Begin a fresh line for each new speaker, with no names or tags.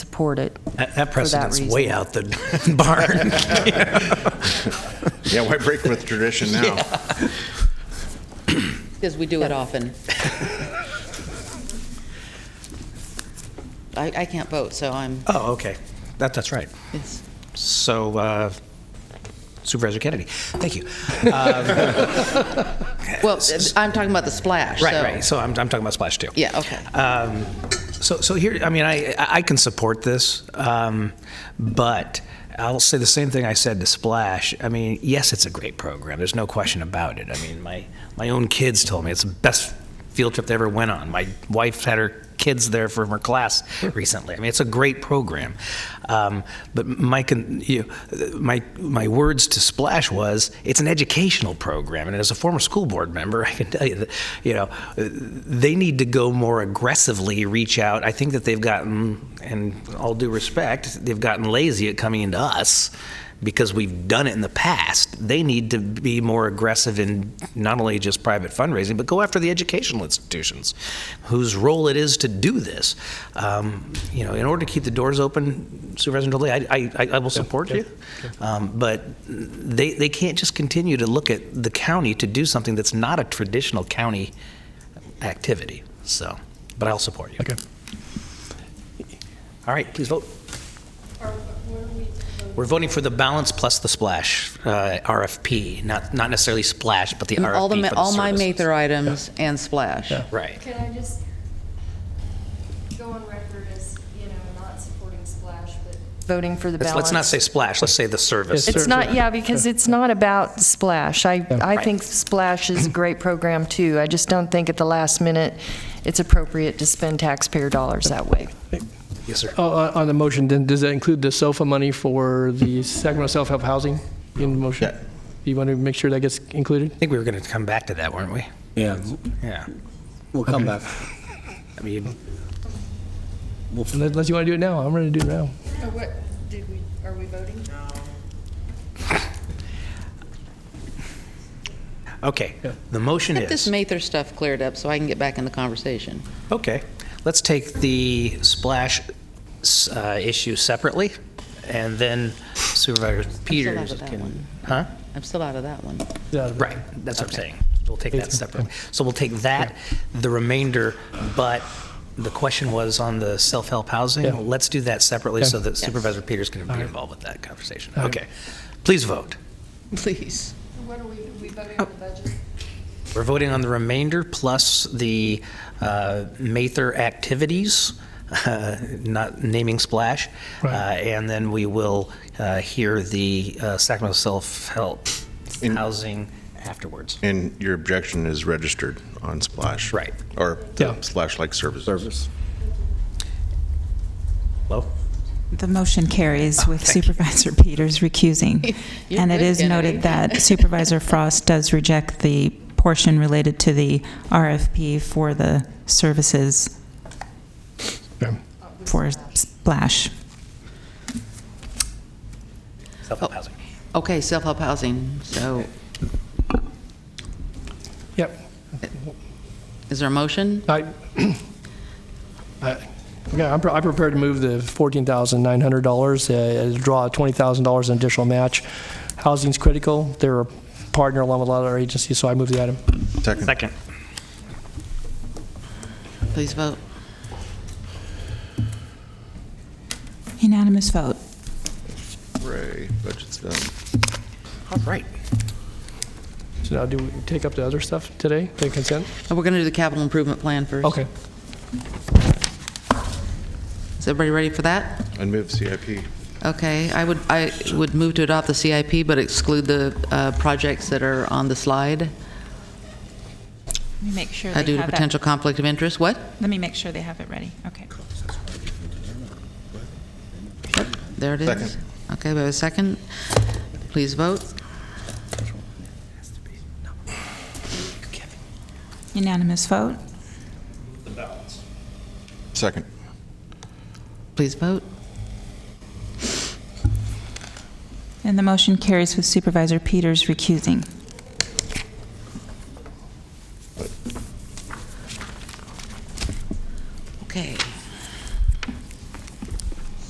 support it.
That that
for that
precedent's
reason.
way out the barn.
Yeah, why break with tradition now?
Because we do it often. I, I can't vote, so I'm,
Oh, okay. That, that's right.
it's-
So uh, Supervisor Kennedy, thank you.
well, I'm talking about the splash, so.
Right, right. So I'm, I'm talking about splash too.
Yeah, okay.
Um, so, so here, I mean, I, I can support this, um, but I'll say the same thing I said to Splash. I mean, yes, it's a great program. There's no question about it. I mean, my, my own kids told me it's the best field trip they ever went on. My wife had her kids there from her class recently. I mean, it's a great program. Um, but my, con- you my, my words to Splash was, it's an educational program. And as a former school board member, I can tell you that, you know, they need to go more aggressively reach out. I think that they've gotten, and all due respect, they've gotten lazy at coming into us because we've done it in the past. They need to be more aggressive in not only just private fundraising, but go after the educational institutions whose role it is to do this. Um, you know, in order to keep the doors open, Supervisor Dolly, I, I, I- I will support you. Um, but they, they can't just continue to look at the county to do something that's not a traditional county activity. So, but I'll support you.
Okay.
All right, please vote. We're voting for the balance plus the splash, uh, RFP, not, not necessarily splash, but the RFP
All the,
for
ma-
the
all my
services.
Mather items and splash.
Yeah.
Right.
Can I just go on record as, you know, not supporting Splash, but
Voting for the
Let's,
balance.
let's not say splash, let's say the service.
Yes, sir.
It's not, yeah, because it's not about Splash. I, I think Splash is a great program too. I just don't think at the last minute it's appropriate to spend taxpayer dollars that way.
Yes, sir.
Oh, uh, On the motion, then, does that include the SOFA money for the Sacramento self-help housing in the motion?
Yeah.
You want to make sure that gets included?
I think we were going to come back to that, weren't we?
Yeah,
Yeah.
we'll come back.
I mean,
Unless unless you want to do it now, I'm ready to do it now.
What, did we, are we voting?
okay, the motion
Get this
is,
Mather stuff cleared up so I can get back in the conversation.
okay, let's take the splash s- uh, issue separately, and then Supervisor Peters
that
can.
one.
Huh?
I'm still out of that one.
Yeah.
Right, that's what I'm
Okay.
saying. We'll take that separately. So we'll take that, the remainder, but the question was on the self-help
Yeah.
housing. Let's do that separately so that
Yes.
Supervisor Peters can be
All right.
involved with that conversation.
All right.
Okay. Please vote.
Please.
What are we, we voting on the budget?
We're voting on the remainder plus the uh, Mather activities, uh, not naming splash. Uh,
Right.
And then we will uh, hear the uh, Sacramento self-help
In-
housing afterwards.
And your objection is registered on Splash.
Right.
Or
Yeah.
Splash-like services.
Service.
Hello?
The motion carries with
Oh, thank you.
Supervisor Peters recusing.
You're
And it
good,
is
Kennedy.
noted that Supervisor Frost does reject the portion related to the RFP for the services
Okay.
for Splash.
Self-help housing.
Okay, self-help housing, so
Yep.
is there a motion?
I, I, yeah, Uh, I'm, pre- I'm prepared to move the fourteen thousand nine hundred dollars, uh, draw twenty thousand dollars in additional match. Housing's critical. They're a partner along with a lot of our agencies, so I move the item.
Second.
Second.
Please vote.
Unanimous vote.
Hooray, budget's done.
All right.
So now do we take up the other stuff today, the consent?
Oh, We're going to do the capital improvement plan first.
Okay.
Is everybody ready for that?
And move CIP.
Okay, I would, I would move to adopt the CIP, but exclude the uh, projects that are on the slide
Let me make sure
uh, due to potential conflict of interest. What?
Let me make sure they have it ready. Okay.
There it is.
Second.
Okay, we have a second. Please vote.
Unanimous vote.
Second.
Please vote.
And the motion carries with Supervisor Peters recusing.